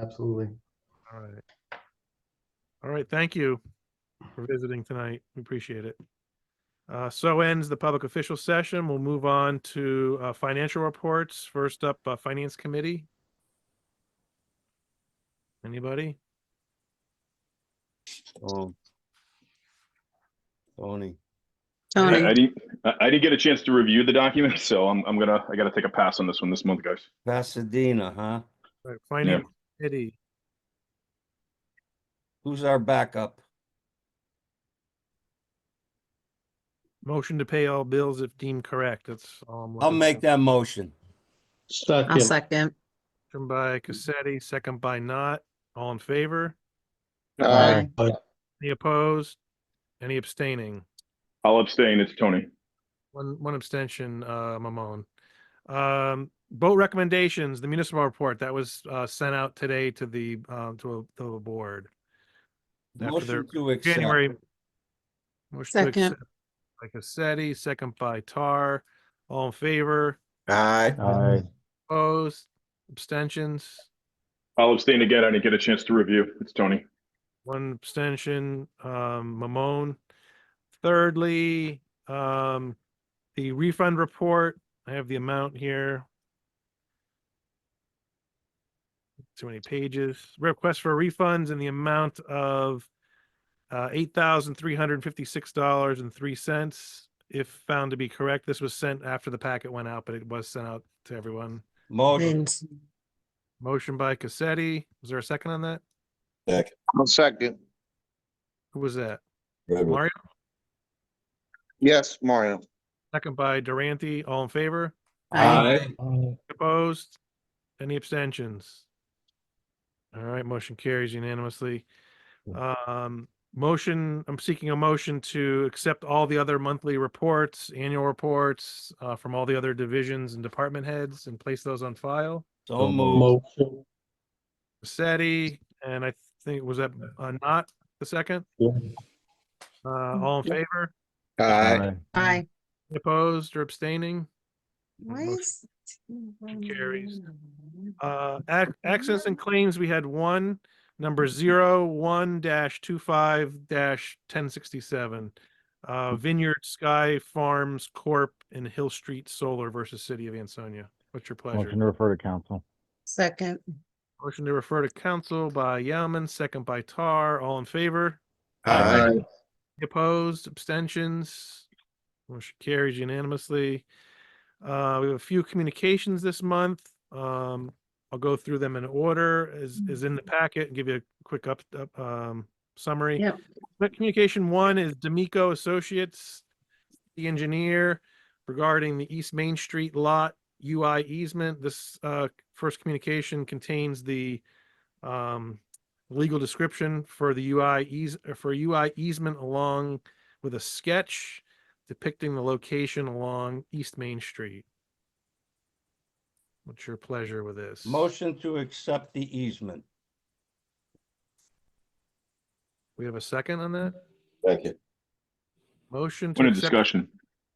absolutely. All right. All right, thank you for visiting tonight. We appreciate it. Uh, so ends the public official session. We'll move on to, uh, financial reports. First up, uh, Finance Committee. Anybody? Oh. Tony, I, I Tony, didn't. I I didn't get a chance to review the document, so I'm. I'm gonna. I gotta take a pass on this one this month, guys. Pasadena, huh? All right, Finance Committee. Who's our backup? Motion to pay all bills if deemed correct. That's all I'm. I'll looking make for. that motion. I'll second. Motion by Cassetti, second by Not. All in favor? Aye. Any opposed? Any abstaining? I'll abstain. It's Tony. One, one abstention, uh, Mamon. Um, boat recommendations, the municipal report that was, uh, sent out today to the, um, to the board. After their Motion to accept. January. Motion to Second. accept By Cassetti, second by Tar, all in favor, Aye. Aye. opposed, abstentions, I'll abstain again. I didn't get a chance to review. It's Tony. one abstention, um, Mamon. Thirdly, um, the refund report, I have the amount here. Too many pages. Request for refunds in the amount of uh, eight thousand three hundred fifty-six dollars and three cents. If found to be correct, this was sent after the packet went out, but it was sent out to everyone. Motion, Vince. Motion by Cassetti. Was there a second on that? I'll second. Who was that? Redwood. Mario? Yes, Mario. Second by Durante. All in favor? Aye. Opposed? Any abstentions? All right, motion carries unanimously. Um, motion, I'm seeking a motion to accept all the other monthly reports, annual reports, uh, from all the other divisions and department heads and place those on file. so moved. Seti, and I think, was that, uh, not the second? Yeah. Uh, all in Yeah. favor? Aye. Aye. Opposed or abstaining? Why Motion is- carries. Uh, ac- access and claims, we had one, number zero, one dash two five dash ten sixty-seven. Hmm. Uh, Vineyard Sky Farms Corp. and Hill Street Solar versus City of Ansonia. What's your pleasure? Motion to refer to council. Second, Motion to refer to council by Yaman, second by Tar, all in favor? Opposed, abstentions? Motion carries unanimously. Uh, we have a few communications this month. Um, I'll go through them in order as, as in the packet and give you a quick up, up, um, summary. Yep. But communication one is D'Amico Associates, the engineer regarding the East Main Street lot UI easement. This, uh, first communication contains the, um, legal description for the UI eas- uh, for UI easement along with a sketch depicting the location along East Main Street. What's your pleasure with this? Motion to accept the easement. We have a second on that? Second. Motion to Point of accept, discussion.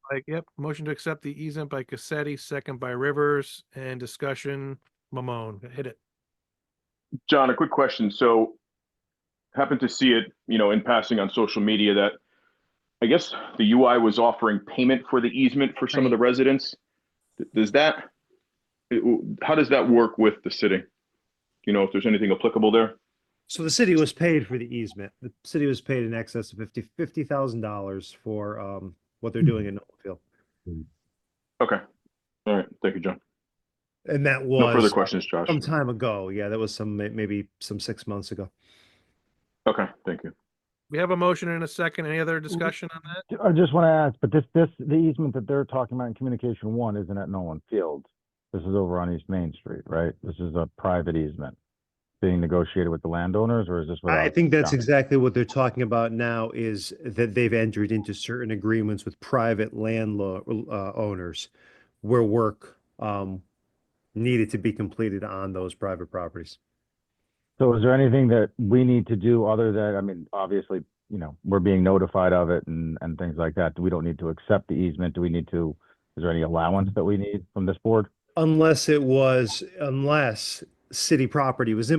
by- yep, motion to accept the easement by Cassetti, second by Rivers, and discussion, Mamone, hit it. John, a quick question. So happened to see it, you know, in passing on social media that I guess the UI was offering payment for the easement for some of the residents. Th- Does that, it- how does that work with the city? Do You know, if there's anything applicable there? So the city was paid for the easement. The city was paid in excess of fifty, fifty thousand dollars for, um, what they're doing in Noblesville. Okay. All right. Thank you, John. And that No further was questions, Josh. some time ago. Yeah, that was some, may- maybe some six months ago. Okay, thank you. We have a motion and a second. Any other discussion on that? I just want to ask, but this, this, the easement that they're talking about in communication one isn't at Nolan Field. This is over on East Main Street, right? This is a private easement being negotiated with the landowners or is this? I without- think that's Yeah. exactly what they're talking about now is that they've entered into certain agreements with private landlord, uh, owners where work, um, needed to be completed on those private properties. So is there anything that we need to do other than, I mean, obviously, you know, we're being notified of it and, and things like that. We don't need to accept the easement. Do we need to, is there any allowance that we need from this board? Unless it was, unless city property was